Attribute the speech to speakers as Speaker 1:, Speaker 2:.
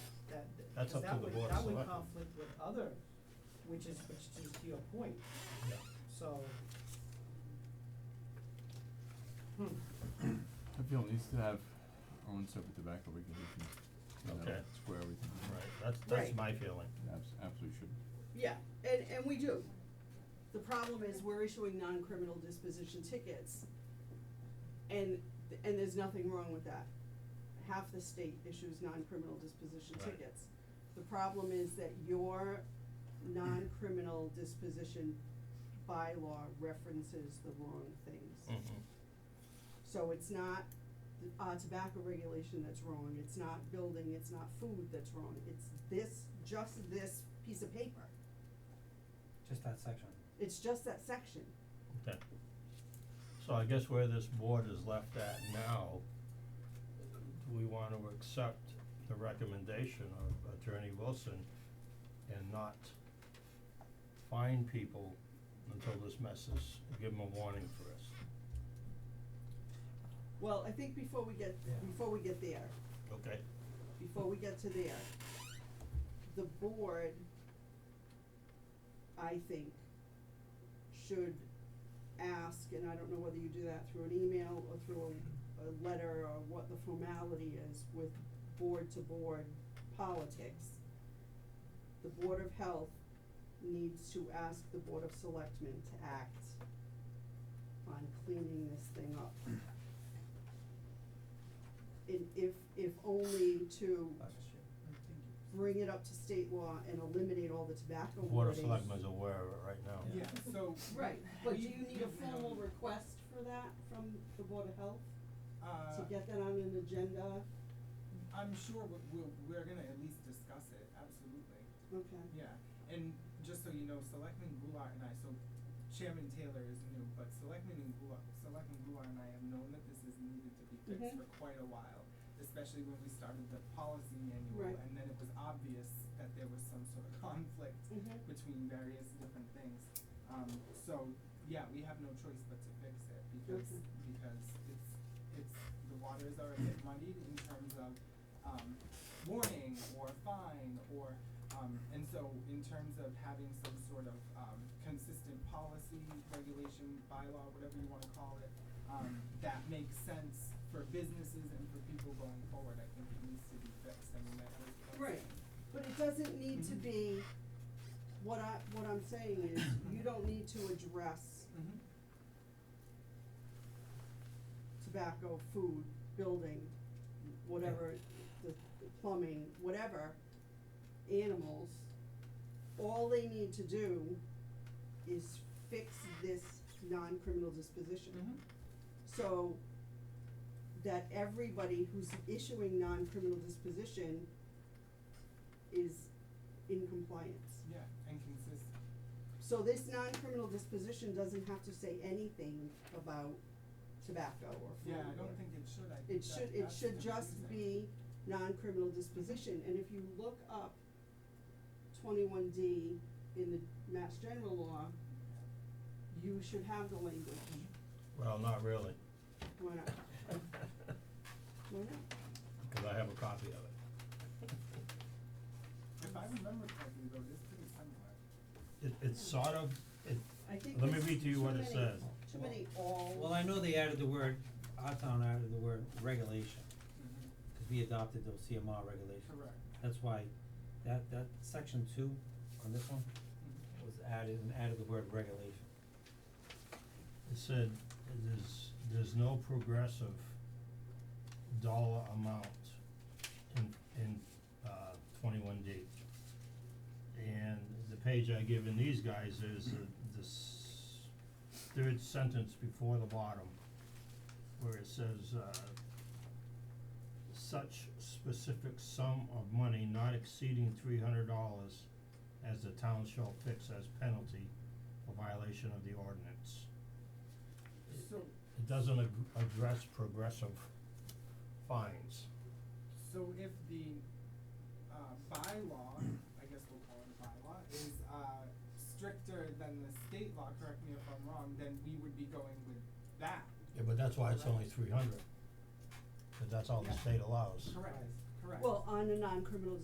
Speaker 1: That's
Speaker 2: Because
Speaker 1: up to
Speaker 2: that
Speaker 1: the
Speaker 2: would-
Speaker 1: board of
Speaker 2: That would
Speaker 1: selectmen.
Speaker 2: conflict with other, which is, which is to your point,
Speaker 1: Yeah.
Speaker 2: so.
Speaker 3: Appeal needs to have own separate tobacco regulations, you know,
Speaker 1: Okay.
Speaker 3: square everything.
Speaker 1: Right, that's, that's
Speaker 4: Right.
Speaker 1: my feeling.
Speaker 3: Abs- absolutely should.
Speaker 4: Yeah, and, and we do. The problem is we're issuing non-criminal disposition tickets. And, and there's nothing wrong with that. Half the state issues non-criminal disposition
Speaker 1: Right.
Speaker 4: tickets. The problem is that your non-criminal disposition bylaw references the wrong things.
Speaker 1: Mm-hmm.
Speaker 4: So it's not uh tobacco regulation that's wrong, it's not building, it's not food that's wrong, it's this, just this piece of paper.
Speaker 5: Just that section.
Speaker 4: It's just that section.
Speaker 1: Okay. So I guess where this board is left at now, do we wanna accept the recommendation of Attorney Wilson and not fine people until this mess is, give them a warning first?
Speaker 4: Well, I think before we get,
Speaker 5: Yeah.
Speaker 4: before we get there,
Speaker 1: Okay,
Speaker 4: before we get to there, the board, I think, should ask, and I don't know whether you do that through an email or through a, a letter or what the formality is with board-to-board politics. The Board of Health needs to ask the Board of Selectmen to act on cleaning this thing up. And if, if only to
Speaker 5: That's just you.
Speaker 4: bring it up to state law and eliminate all the tobacco
Speaker 1: the Board of
Speaker 4: wording.
Speaker 1: Selectmen's aware of it right now.
Speaker 6: Yeah, so.
Speaker 4: Right, but do you need a
Speaker 6: we-
Speaker 4: formal request for that from the Board of Health, to
Speaker 6: Uh,
Speaker 4: get that on an agenda?
Speaker 6: I'm sure we- we'll, we're gonna at least discuss it, absolutely,
Speaker 4: Okay,
Speaker 6: yeah. And just so you know, Selectman Goulart and I, so Chairman Taylor is new, but Selectman and Goulart, Selectman Goulart and I have known that this is needed to be fixed
Speaker 4: Mhm.
Speaker 6: for quite a while. Especially when we started the policy
Speaker 4: Right.
Speaker 6: manual, and then it was obvious that there was some sort of conflict
Speaker 4: mhm,
Speaker 6: between various different things. Um, so, yeah, we have no choice but to fix it because,
Speaker 4: Okay.
Speaker 6: because it's, it's, the waters are a bit muddied in terms of, um, warning or fine or, um, and so in terms of having some sort of, um, consistent policy, regulation, bylaw, whatever you wanna call it, um, that makes sense for businesses and for people going forward, I think it needs to be fixed, I mean, that was. that's-
Speaker 4: right, but it doesn't need to
Speaker 6: Mhm.
Speaker 4: be, what I, what I'm saying is, you don't need to address
Speaker 6: Mhm.
Speaker 4: tobacco, food, building, whatever, the the plumbing, whatever, animals, all they need to do is fix this non-criminal disposition.
Speaker 6: Mhm.
Speaker 4: So that everybody who's issuing non-criminal disposition is in compliance.
Speaker 6: Yeah, and consistent.
Speaker 4: So this non-criminal disposition doesn't have to say anything about tobacco or food
Speaker 6: Yeah, I
Speaker 4: or-
Speaker 6: don't think it should, I think
Speaker 4: It
Speaker 6: that-
Speaker 4: should, it
Speaker 6: that's
Speaker 4: should just
Speaker 6: confusing.
Speaker 4: be non-criminal disposition, and if you look up twenty-one D in the Mass General Law, you should have the language.
Speaker 1: Well, not really,
Speaker 4: Why not? Why not?
Speaker 1: cause I have a copy of it.
Speaker 6: If I remember correctly though, this pretty similar.
Speaker 1: It, it's sort of, it,
Speaker 4: I think
Speaker 1: Let me
Speaker 4: there's
Speaker 1: read to you
Speaker 4: too
Speaker 1: what it
Speaker 4: many-
Speaker 1: says.
Speaker 4: Too many all.
Speaker 5: Well, I know they added the word, our town added the word regulation, cause we adopted those CMR regulations.
Speaker 6: Correct.
Speaker 5: That's why that, that section two on this one was added and added the word regulation.
Speaker 1: It said, there's, there's no progressive dollar amount in, in, uh, twenty-one D. And the page I give in these guys is the, this third sentence before the bottom, where it says, uh, such specific sum of money not exceeding three hundred dollars as the town shall fix as penalty for violation of the ordinance.
Speaker 6: So,
Speaker 1: It doesn't ag- address progressive fines.
Speaker 6: so if the, uh, bylaw, I guess we'll call it a bylaw, is, uh, stricter than the state law, correct me if I'm wrong, then we would be going with that.
Speaker 1: Yeah, but that's why it's only three hundred. Cause that's all the
Speaker 6: Yeah.
Speaker 1: state allows.
Speaker 6: Correct, correct.
Speaker 4: Well, on a non-criminal